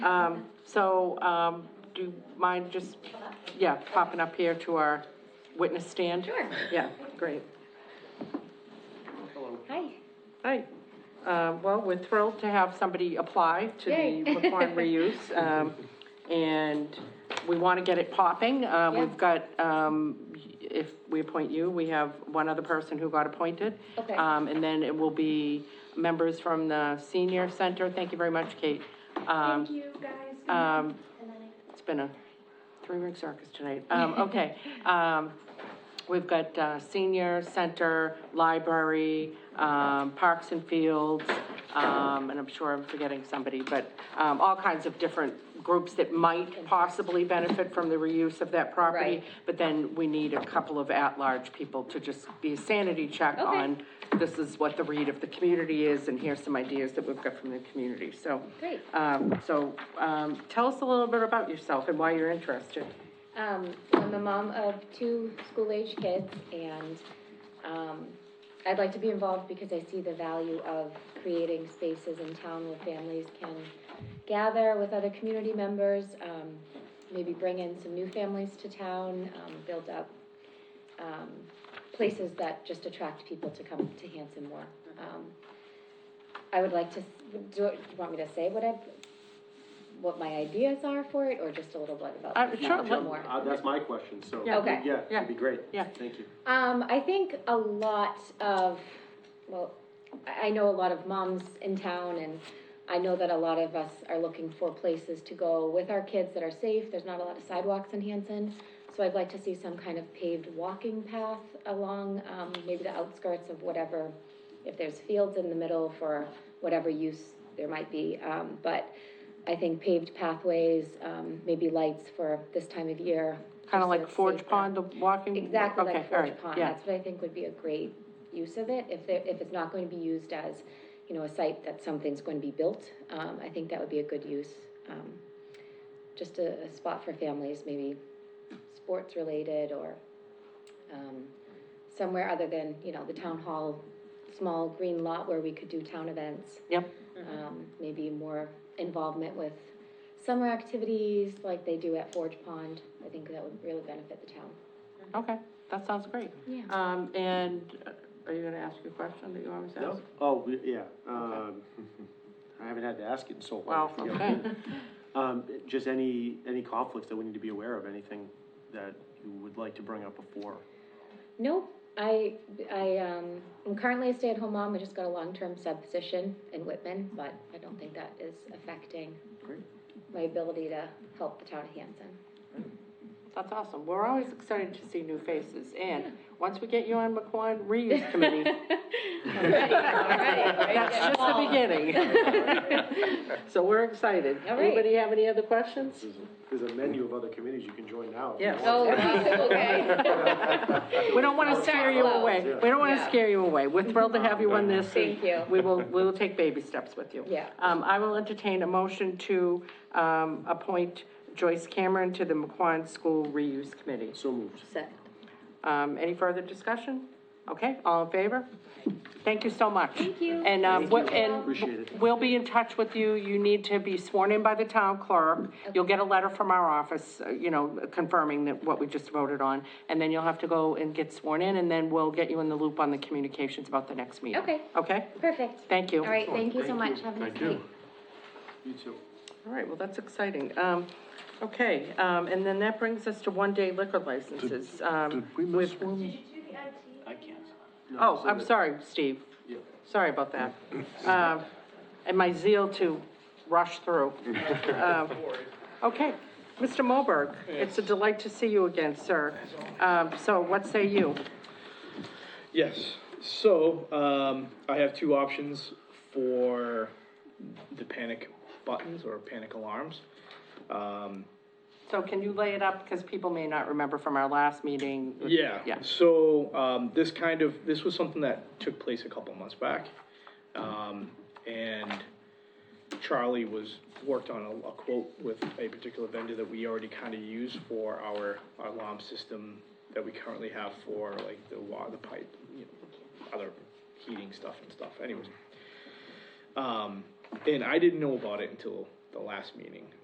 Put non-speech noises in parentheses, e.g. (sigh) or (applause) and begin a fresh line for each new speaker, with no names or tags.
Um, so, um, do you mind just, yeah, popping up here to our witness stand?
Sure.
Yeah, great.
Hi.
Hi. Uh, well, we're thrilled to have somebody apply to
Yay.
the Laquan
(laughs)
reuse. Um, and we want to get it popping. Uh, we've got, um, if we appoint you, we have one other person who got appointed.
Okay.
Um, and then it will be members from the senior center. Thank you very much, Kate. Um,
Thank you, guys. Good night.
um,
And then I-
it's been a three-ring circus tonight.
(laughs)
Um, okay, um, we've got, uh, senior center, library, um, parks and fields, um, and I'm sure I'm forgetting somebody, but, um, all kinds of different groups that might possibly benefit from the reuse of that property.
Right.
But then we need a couple of at-large people to just be a sanity check
Okay.
on, this is what the read of the community is, and here's some ideas that we've got from the community, so.
Great.
Um, so, um, tell us a little bit about yourself and why you're interested.
Um, I'm a mom of two school-age kids, and, um, I'd like to be involved because I see the value of creating spaces in town where families can gather with other community members, um, maybe bring in some new families to town, um, build up, um, places that just attract people to come to Hanson more. Um, I would like to, s- do, do you want me to say what I've, what my ideas are for it, or just a little bit about?
Uh, sure,
a little
let-
more?
Uh, that's my question, so.
Yeah.
Okay.
Yeah,
Yeah.
that'd be great.
Yeah.
Thank you.
Um, I think a lot of, well, I I know a lot of moms in town, and I know that a lot of us are looking for places to go with our kids that are safe. There's not a lot of sidewalks in Hanson, so I'd like to see some kind of paved walking path along, um, maybe the outskirts of whatever, if there's fields in the middle for whatever use there might be. Um, but I think paved pathways, um, maybe lights for this time of year.
Kind
just so
of like
it's
Forge
safer.
Pond, the walking?
Exactly
Mm-hmm. Okay,
like
all right,
Forge Pond,
Yeah,
that's what I think would be a great use of it, if there, if it's not going to be used as, you know, a site that something's going to be built, um, I think that would be a good use. Um, Just a, a spot for families, maybe sports related or, um, somewhere other than, you know, the town hall, small green lot where we could do town events
yep,
um, maybe more involvement with summer activities like they do at Forge Pond. I think that would really benefit the town.
okay, that sounds great.
Yeah.
Um, and uh, are you gonna ask your question that you always ask?
No? Oh, we- yeah, um, I haven't had to ask it in so long.
Wow,
Yeah.
okay.
Um, just any, any conflicts that we need to be aware of, anything that you would like to bring up before?
No, I, I, um, I'm currently a stay-at-home mom. I just got a long-term sub position in Whitman, but I don't think that is affecting
Great.
my ability to help the town of Hanson.
That's awesome. We're always excited to see new faces. And once we get you on McQuon Reuse
(laughs)
Committee,
Alrighty, alrighty.
that's just the beginning.
(laughs)
So we're excited.
All right.
Anybody have any other questions?
There's a- There's a menu of other committees you can join now. if you
Yes.
Oh,
want.
wow, okay.
(laughs)
We don't want to scare you
slow.
away. We don't want to
Yeah.
scare you away. We're thrilled to have you on this. and
Thank you.
We will, we will take baby steps with you.
Yeah.
Um, I will entertain a motion to, um, appoint Joyce Cameron to the McQuon School Reuse Committee.
So moved.
Second.
Um, any further discussion? Okay, all in favor? Thank you so much. Thank
you.
And, um,
Thank you.
what, and
Appreciate it.
we'll be in touch with you. You need to be sworn in by the town clerk. You'll get a letter from our office, uh, you know, confirming that what we just voted on. And then you'll have to go and get sworn in, and then we'll get you in the loop on the communications about the next meeting.
Okay.
Okay?
Perfect.
Thank you.
All right, thank you so much. Have a nice night.
You too.
All right, well, that's exciting. Um, okay, um, and then that brings us to one-day liquor licenses. Um,
Did we miss one?
Did you do the IT?
I can't.
oh, I'm sorry, Steve.
Yeah.
Sorry about that. Um, And my zeal to rush through. Um, Okay, Mr. Moberg, it's a delight to see you again, sir. Um, So what say you?
Yes. So um, I have two options for the panic buttons or panic alarms. Um,
So can you lay it up, because people may not remember from our last meeting?
yeah.
Yeah,
So um, this kind of this was something that took place a couple months back, um, and Charlie was worked on a, a quote with a particular vendor that we already kind of use for our, our alarm system that we currently have for like the water, the pipe, you know, other heating stuff and stuff. Anyways, Um, and I didn't know about it until the last meeting.